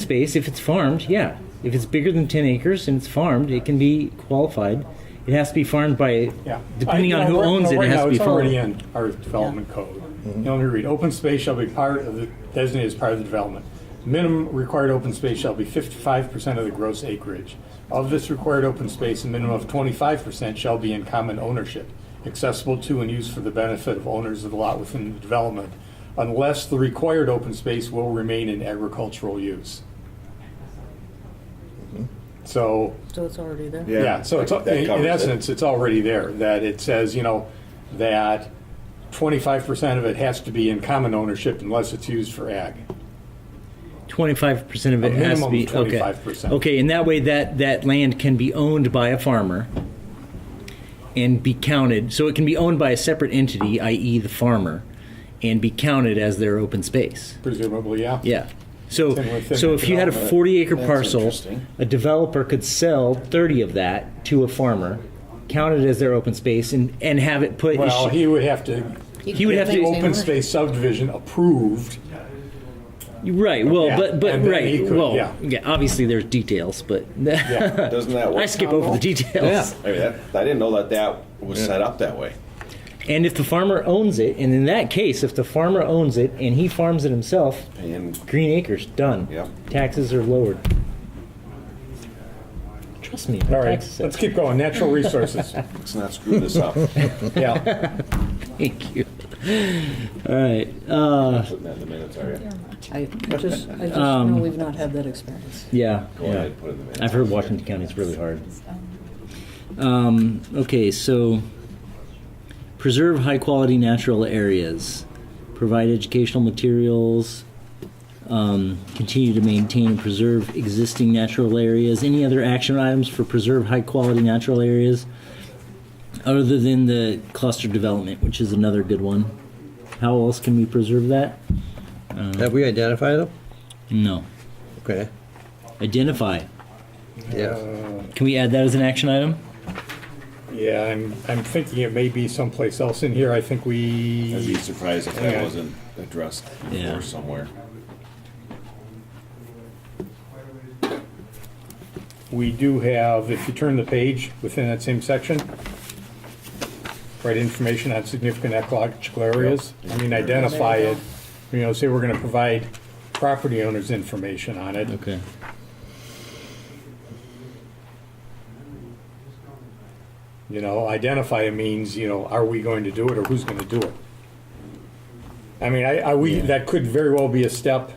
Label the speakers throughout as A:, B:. A: space, if it's farmed, yeah. If it's bigger than 10 acres and it's farmed, it can be qualified. It has to be farmed by,
B: Yeah.
A: depending
B: I-
A: on
B: no,
A: who
B: right-
A: owns
B: no,
A: it,
B: right
A: it has
B: now,
A: to be
B: It's already
A: farmed.
B: in our development code. You know, Let me read. Open space shall be part of the, designated as part of the development. Minimum required open space shall be fifty-five percent of the gross acreage. Of this required open space, a minimum of twenty-five percent shall be in common ownership, accessible to and used for the benefit of owners of the lot within the development, unless the required open space will remain in agricultural use. So,
C: So it's already there.
B: yeah, so it's,
D: that
B: in in
D: covers it.
B: essence, it's already there, that it says, you know, that twenty-five percent of it has to be in common ownership unless it's used for ag.
A: 25% of it
B: A
A: has to
B: minimum
A: be,
B: of
A: okay.
B: 25%.
A: Okay, and that way that, that land can be owned by a farmer and be counted. So it can be owned by a separate entity, i.e. the farmer, and be counted as their open space.
B: Presumably, yeah.
A: Yeah. So,
B: Same with
A: so if you had a
B: development.
A: 40 acre
D: That's
A: parcel,
D: interesting.
A: a developer could sell 30 of that to a farmer, count it as their open space, and, and have it put.
B: Well, he would have to,
A: He would have
B: the
A: to-
B: open space subdivision approved,
A: right. Well,
B: Yeah,
A: but but
B: and then
A: right.
B: he could,
A: well,
B: yeah.
A: Obviously, there's details, but
D: Doesn't that work?
A: I skip over the details.
D: I mean, that, I didn't know that that was set up that way.
A: And if the farmer owns it, and in that case, if the farmer owns it and he farms it himself,
D: And
A: green acres done.
D: Yep.
A: Taxes are lowered. Trust me. my
B: all right,
A: taxes are-
B: let's keep going, natural resources,
D: let's not screw this up.
B: yeah.
A: Thank you. All right. Uh,
D: Putting that in the minutes, are you?
C: I just, I just
A: Um,
C: know we've not had that experience.
A: yeah.
D: Go
A: yeah.
D: ahead and put it in the minutes.
A: I've heard Washington County is really hard. Um, okay, so preserve high quality natural areas, provide educational materials, um, continue to maintain and preserve existing natural areas. Any other action items for preserve high quality natural areas other than the cluster development, which is another good one? How else can we preserve that?
E: Have we identified them?
A: No.
E: Okay,
A: Identify.
E: yeah.
A: Can we add that as an action item?
B: Yeah, I'm, I'm thinking it may be someplace else in here, I think
D: I'd be
B: we,
D: surprised if
B: Yeah.
D: that wasn't addressed
A: Yeah.
D: before somewhere.
B: we do have, if you turn the page within that same section, right information on significant ecological areas, I mean, identify it, you know, say we're gonna provide property owners information on it,
A: Okay.
B: You know, identify means, you know, are we going to do it or who's gonna do it? I mean, I, I, we, that could very well be a step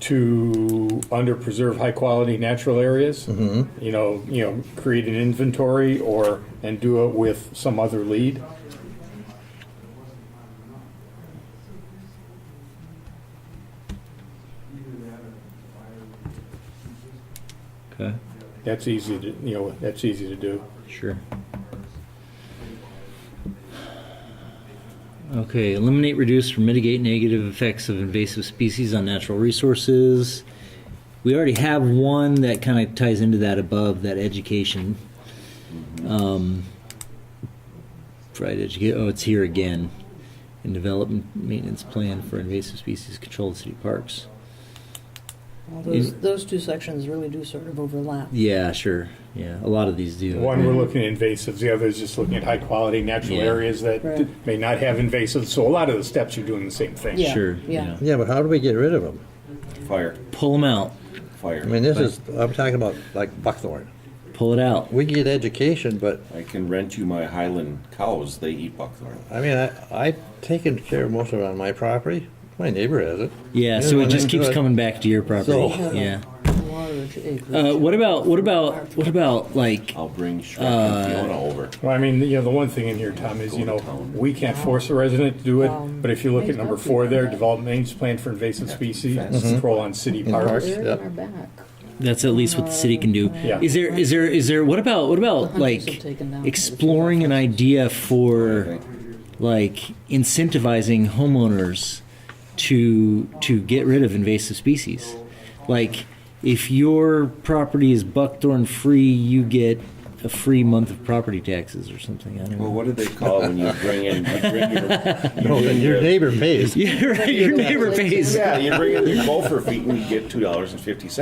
B: to under preserve high quality natural areas. You know, you know, create an inventory or, and do it with some other lead.
A: Okay.
B: That's easy to, you know, that's easy to do.
A: Sure. Okay, eliminate, reduce, or mitigate negative effects of invasive species on natural resources. We already have one that kind of ties into that above that education. Um, provide educate. Oh, it's here again. And development maintenance plan for invasive species controlled city parks.
C: Well, Those, those two sections really do sort of overlap.
A: Yeah, sure. Yeah, a lot of these do.
B: One, we're looking at invasives, the other is just looking at high quality natural
A: Mm-hmm. Yeah.
B: areas that
C: Right.
B: may not have invasives, so a lot of the steps are doing the same thing.
C: Yeah,
A: Sure.
C: yeah.
A: yeah.
E: Yeah, but how do we get rid of them?
D: Fire,
A: Pull them out.
D: fire.
E: I mean, this is, I'm talking about like buckthorn.
A: Pull it out.
E: We get education, but,
D: I can rent you my Highland cows. They eat buckthorn.
E: I mean, I, I've taken care of most of it on my property. My neighbor has it.
A: Yeah,
E: They're
A: so
E: the
A: it
E: one
A: just
E: that
A: keeps
E: do it.
A: coming back to your property.
E: So-
A: Oh, Yeah.
C: Large acreage.
A: Uh, what about what about what about like
D: I'll bring Shrek and Fiona over.
B: Well, I mean, you know, the one thing in here, Tom, is, you know, we can't force a resident to do it, but if you look at number four there, develop maintenance plan for invasive species, control on city parks.
E: Parks.
F: They're
E: Yep.
F: in our back.
A: that's at least what the city can do.
B: Yeah.
A: Is there is there is there what about what about
C: hunters have
A: like
C: taken down-
A: exploring an idea for
D: Okay.
A: like incentivizing homeowners to to get rid of invasive species? Like if your property is buckthorn free, you get a free month of property taxes or something. I don't
D: Well,
A: know.
D: what do they call when you bring in, you bring your, you
E: No,
D: bring
E: Oh, your neighbor pays.
A: Yeah, right. Your neighbor pays.
D: Yeah, you bring in your gopher feet and you get two dollars and fifty cents.